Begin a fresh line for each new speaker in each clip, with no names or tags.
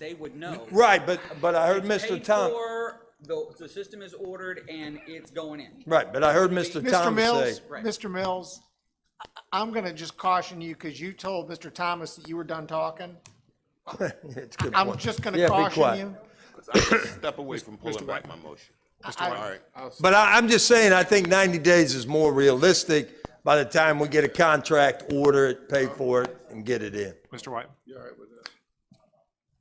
they would know.
Right, but, but I heard
It's
Mr.
paid
Tom,
for, The, the system is ordered and it's going in.
right, but I heard Mr.
Mr.
Thomas
Mills,
say,
Right.
Mr. Mills, I- I'm going to just caution you because you told Mr. Thomas that you were done talking.
it's a good
I'm
point.
just going
Yeah,
to
be
caution
quiet.
you.
Step away from pulling back my motion. Mr. All right.
But I, I'm just saying, I think ninety days is more realistic by the time we get a contract, order it, pay for it, and get it in.
Mr. White? You all right with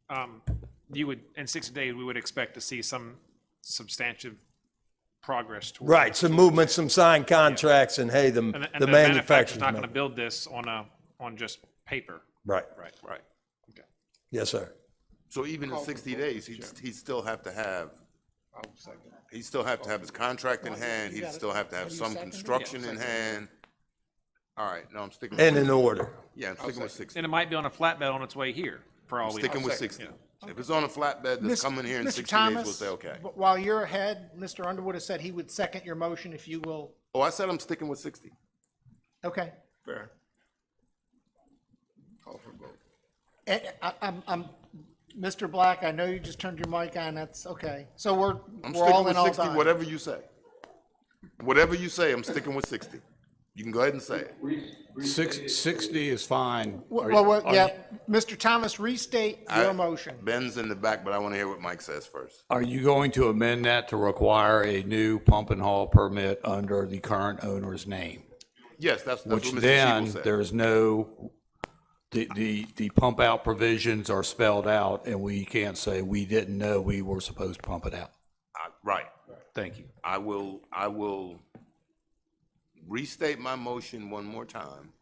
that? You would, in 60 days, we would expect to see some substantive progress toward.
Right, some movement, some signed contracts, and hey, the,
And and
the
manufacturer's
manufacturer's.
not going to
money.
build this on a, on just paper.
Right,
Right.
Right.
yes, sir.
So even in sixty days, he'd, he'd still have to have, he'd still have to have his contract in hand, he'd still have to have some construction in hand. All right, no, I'm sticking, with-
And in order.
yeah, I'm sticking with sixty,
And it might be on a flatbed on its way here, for all we know.
sticking with sixty. If it's on a flatbed that's coming here in
Mr.
sixty days,
Thomas,
we'll say, okay.
wh- While you're ahead, Mr. Underwood has said he would second your motion if you will,
Oh, I said I'm sticking with sixty.
okay.
Fair.
Eh, eh, I- I'm, I'm, Mr. Black, I know you just turned your mic on, that's okay. So we're,
I'm
we're all
sticking
in
with
all
sixty,
time.
whatever you say. Whatever you say, I'm sticking with sixty. You can go ahead and say it.
Six, sixty is fine. Are you-
Well, well,
are
yeah,
you-
Mr. Thomas, restate your
I-
motion.
Ben's in the back, but I want to hear what Mike says first.
Are you going to amend that to require a new pump and haul permit under the current owner's name?
Yes, that's, that's
Which
what Mr. Siebel
then,
said.
there's no, the, the, the pump out provisions are spelled out and we can't say we didn't know we were supposed to pump it out.
I- Right.
Thank you.
I will, I will restate my motion one more time,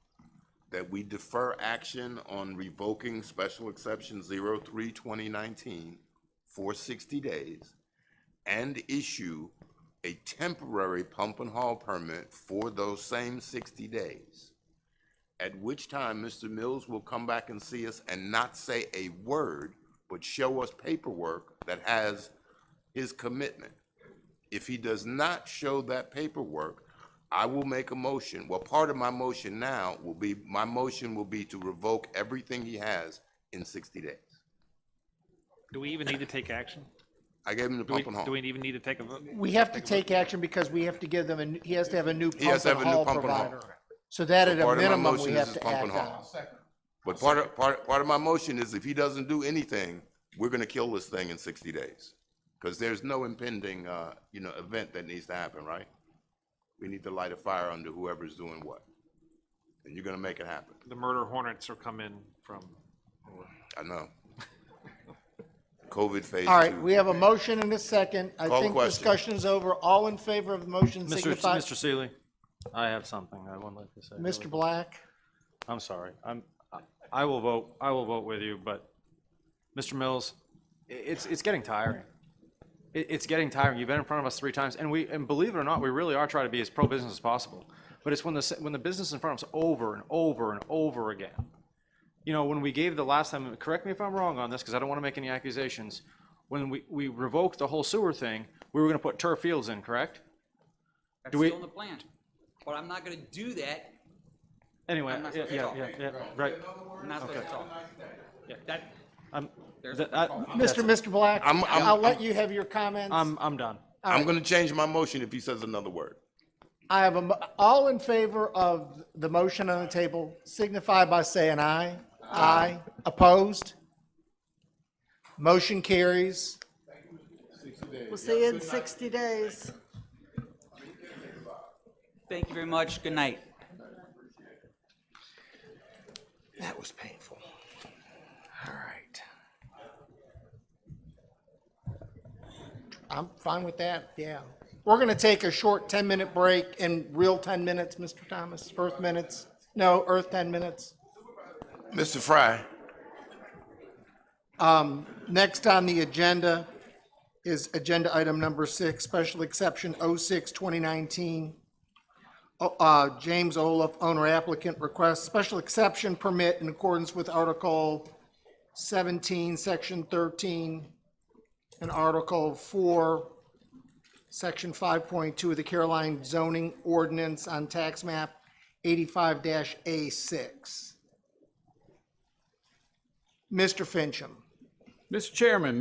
that we defer action on revoking special exception 03-2019 for sixty days and issue a temporary pump and haul permit for those same sixty days. At which time, Mr. Mills will come back and see us and not say a word, but show us paperwork that has his commitment. If he does not show that paperwork, I will make a motion. Well, part of my motion now will be, my motion will be to revoke everything he has in sixty days.
Do we even need to take action?
I gave him the
Do we,
pump and
do we
haul.
even need to take a vote?
We have to take action because we have to give them, a n- he has to have a new pump
has to
and
have a new
haul
pump and haul.
provider. So that at a
Part of my
minimum, we
motion is
have
his
to
pump and
act on.
haul. But part of, part, part of my motion is if he doesn't do anything, we're gonna kill this thing in sixty days. Cause there's no impending, uh, you know, event that needs to happen, right? We need to light a fire under whoever's doing what. And you're gonna make it happen.
The murder hornets are coming from,
I know. COVID phase two.
All right, we have a motion and a second. I
Call the
think
question.
discussion is over. All in favor of the motion
Mr.
signify.
Mr. Seeley, I have something I want to let you say.
Mr. Black,
I'm sorry. I'm, I- I will vote, I will vote with you, but, Mr. Mills, i- it's, it's getting tiring. It, it's getting tiring. You've been in front of us three times, and we, and believe it or not, we really are trying to be as pro-business as possible. But it's when the, s- when the business in front of us over and over and over again. You know, when we gave the last time, correct me if I'm wrong on this, because I don't want to make any accusations. When we, we revoked the whole sewer thing, we were going to put turf fields in, correct?
That's
Do we-
still in the plan. But I'm not gonna do that.
Anyway,
I'm not
Uh, yeah,
supposed to
yeah,
talk.
yeah, yeah, right.
I'm not supposed to talk.
Yeah, that, I'm,
There's
that, I-
Mr. Mr. Black,
I'm- I'm-
I'll let you have your comments.
I'm, I'm done.
I'm gonna change my motion if he says another word.
I have a, mo- all in favor of the motion on the table signify by saying aye. Aye. Opposed? Motion carries.
We'll see you in 60 days.
Thank you very much. Good night.
That was painful. All right.
I'm fine with that, yeah. We're going to take a short 10-minute break in real 10 minutes, Mr. Thomas, Earth minutes. No, Earth 10 minutes.
Mr. Fry,
Next on the agenda is agenda item number six, special exception 06, 2019. O- uh, James Olaf, owner applicant, requests special exception permit in accordance with Article 17, Section 13, and Article 4, Section 5.2 of the Caroline zoning ordinance on tax map 85-A6. Mr. Fincham.
Mr. Chairman,